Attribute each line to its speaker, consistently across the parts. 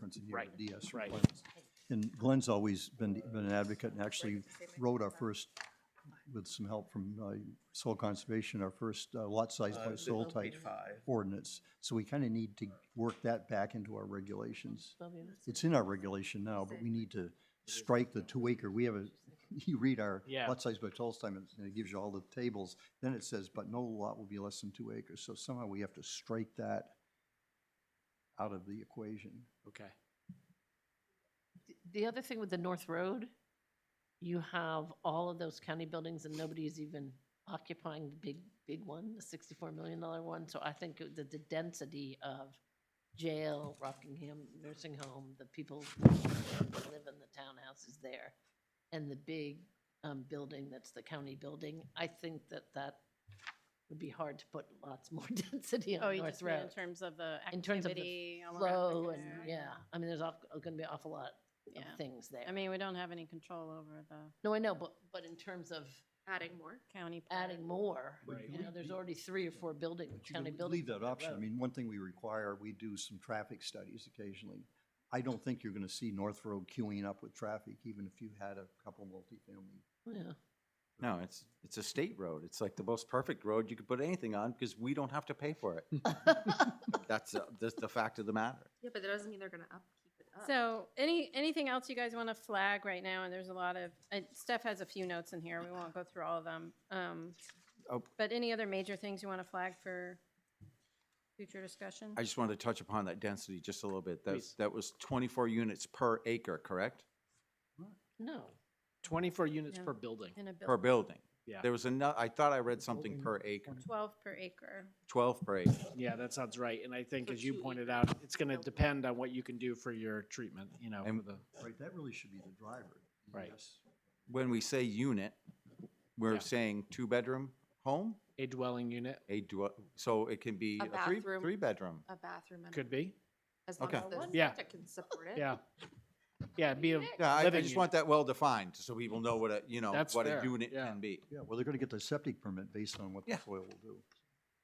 Speaker 1: once a year,
Speaker 2: Right,
Speaker 1: the DS
Speaker 2: right.
Speaker 1: requirements. And Glenn's always been, been an advocate and actually wrote our first, with some help from uh, Soil Conservation, our first uh, lot size by soil type
Speaker 3: Page five.
Speaker 1: ordinance. So we kind of need to work that back into our regulations. It's in our regulation now, but we need to strike the two acre. We have a, you read our
Speaker 2: Yeah.
Speaker 1: lot size by total time and it gives you all the tables. Then it says, but no lot will be less than two acres. So somehow we have to strike that out of the equation.
Speaker 2: Okay.
Speaker 4: The other thing with the North Road, you have all of those county buildings and nobody's even occupying the big, big one, the sixty-four million dollar one. So I think it- that the density of jail, Rockingham nursing home, the people that live in the townhouses there, and the big um, building that's the county building, I think that that would be hard to put lots more density
Speaker 5: Oh,
Speaker 4: on
Speaker 5: you
Speaker 4: North
Speaker 5: just mean in
Speaker 4: Road.
Speaker 5: terms of the
Speaker 4: In terms of the
Speaker 5: activity. all around,
Speaker 4: Flow
Speaker 5: like,
Speaker 4: and,
Speaker 5: uh,
Speaker 4: yeah, I mean, there's going to be an awful lot of
Speaker 5: Yeah.
Speaker 4: things there.
Speaker 5: I mean, we don't have any control over the
Speaker 4: No, I know, but, but in terms of
Speaker 6: Adding more?
Speaker 5: county. part.
Speaker 4: adding more,
Speaker 2: Right.
Speaker 4: you know, there's already three or four building,
Speaker 1: But you
Speaker 4: county
Speaker 1: can
Speaker 4: buildings.
Speaker 1: leave that
Speaker 4: on
Speaker 1: option. I
Speaker 4: road.
Speaker 1: mean, one thing we require, we do some traffic studies occasionally. I don't think you're gonna see North Road queuing up with traffic, even if you had a couple multifamily.
Speaker 4: Yeah.
Speaker 7: No, it's, it's a state road. It's like the most perfect road you could put anything on because we don't have to pay for it. That's, uh, that's the fact of the matter.
Speaker 6: Yeah, but that doesn't mean they're gonna up, keep it up.
Speaker 5: So any, anything else you guys want to flag right now? And there's a lot of, uh, Steph has a few notes in here. We won't go through all of them. Um,
Speaker 7: Oh.
Speaker 5: But any other major things you want to flag for future discussion?
Speaker 7: I just wanted to touch upon that density just a little bit. That,
Speaker 2: Please.
Speaker 7: that was twenty-four units per acre, correct?
Speaker 4: No,
Speaker 2: Twenty-four units
Speaker 5: Yeah.
Speaker 2: per building.
Speaker 5: In a
Speaker 7: Per
Speaker 5: building,
Speaker 7: building.
Speaker 2: Yeah.
Speaker 7: There was another, I thought I read something per acre,
Speaker 5: twelve per acre.
Speaker 7: twelve per acre.
Speaker 2: Yeah, that sounds right. And I think,
Speaker 6: For
Speaker 2: as you
Speaker 6: two
Speaker 2: pointed
Speaker 6: acre
Speaker 2: out, it's gonna
Speaker 6: building.
Speaker 2: depend on what you can do for your treatment, you know,
Speaker 7: And-
Speaker 2: for the,
Speaker 1: Right, that really should be the driver.
Speaker 2: Right.
Speaker 1: Yes.
Speaker 7: When we say unit,
Speaker 2: Yeah.
Speaker 7: we're saying two-bedroom home,
Speaker 2: a dwelling unit
Speaker 7: a dwell, so it can be
Speaker 6: A
Speaker 7: a three,
Speaker 6: bathroom.
Speaker 7: three-bedroom.
Speaker 6: A bathroom. and a-
Speaker 2: could be.
Speaker 6: As long
Speaker 7: Okay.
Speaker 6: as the
Speaker 2: Yeah.
Speaker 6: septic can support it.
Speaker 2: Yeah. Yeah, it'd be a,
Speaker 7: Yeah, I, I
Speaker 2: Living
Speaker 7: just want that well-defined so people know what a, you know,
Speaker 2: That's
Speaker 7: what a
Speaker 2: fair,
Speaker 7: unit
Speaker 2: yeah.
Speaker 7: can be
Speaker 1: Yeah, well, they're gonna get the septic permit based on what the
Speaker 7: Yeah.
Speaker 1: soil will do.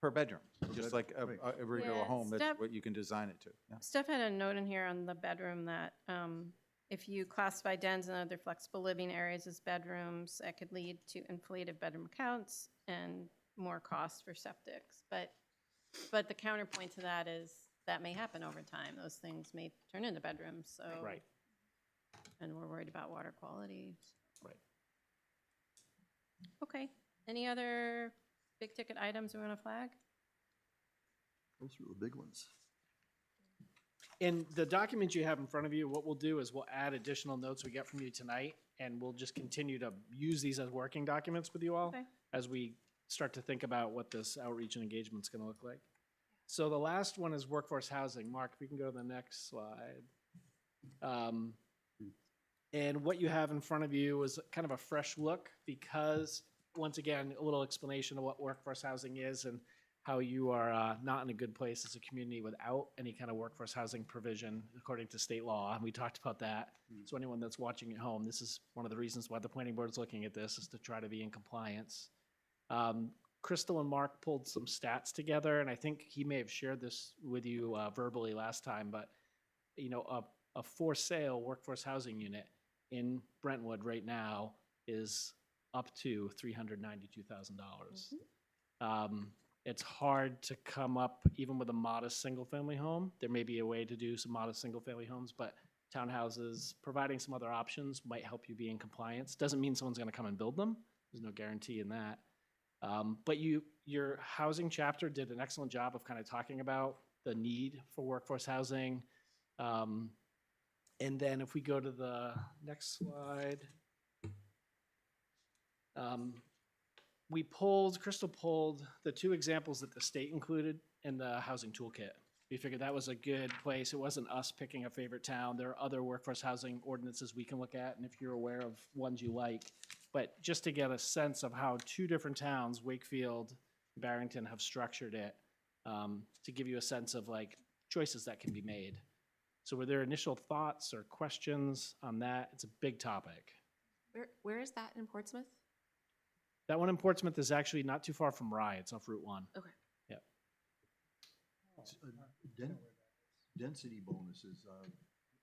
Speaker 7: per bedroom, just
Speaker 1: Good.
Speaker 7: like a,
Speaker 1: Great.
Speaker 7: a- a regular
Speaker 5: Yeah,
Speaker 7: home, that's
Speaker 5: step-
Speaker 7: what you can design it to. yeah.
Speaker 5: Steph had a note in here on the bedroom that um, if you classify dens and other flexible living areas as bedrooms, that could lead to inflated bedroom counts and more costs for septics. But, but the counterpoint to that is that may happen over time. Those things may turn into bedrooms, so.
Speaker 2: right.
Speaker 5: And we're worried about water quality.
Speaker 2: Right.
Speaker 5: Okay. Any other big ticket items we want to flag?
Speaker 1: Those are the big ones.
Speaker 2: In the documents you have in front of you, what we'll do is we'll add additional notes we get from you tonight, and we'll just continue to use these as working documents with you all
Speaker 5: Okay.
Speaker 2: as we start to think about what this outreach and engagement's gonna look like. So the last one is workforce housing. Mark, if you can go to the next slide. Um, And what you have in front of you is kind of a fresh look because, once again, a little explanation of what workforce housing is and how you are uh, not in a good place as a community without any kind of workforce housing provision according to state law. And we talked about that. So anyone that's watching at home, this is one of the reasons why the planning board is looking at this is to try to be in compliance. Um, Crystal and Mark pulled some stats together, and I think he may have shared this with you uh, verbally last time, but you know, a, a for sale workforce housing unit in Brentwood right now is up to three hundred ninety-two thousand dollars. Um, it's hard to come up even with a modest single-family home. There may be a way to do some modest single-family homes, but townhouses, providing some other options might help you be in compliance. Doesn't mean someone's gonna come and build them. There's no guarantee in that. Um, but you, your housing chapter did an excellent job of kind of talking about the need for workforce housing. Um, and then if we go to the next slide. Um, we pulled, Crystal pulled the two examples that the state included in the housing toolkit. We figured that was a good place. It wasn't us picking a favorite town. There are other workforce housing ordinances we can look at, and if you're aware of ones you like. But just to get a sense of how two different towns, Wakefield, Barrington, have structured it, um, to give you a sense of like choices that can be made. So were there initial thoughts or questions on that? It's a big topic.
Speaker 6: Where, where is that in Portsmouth?
Speaker 2: That one in Portsmouth is actually not too far from Rye. It's off Route One.
Speaker 1: It's a den- Density bonuses, uh,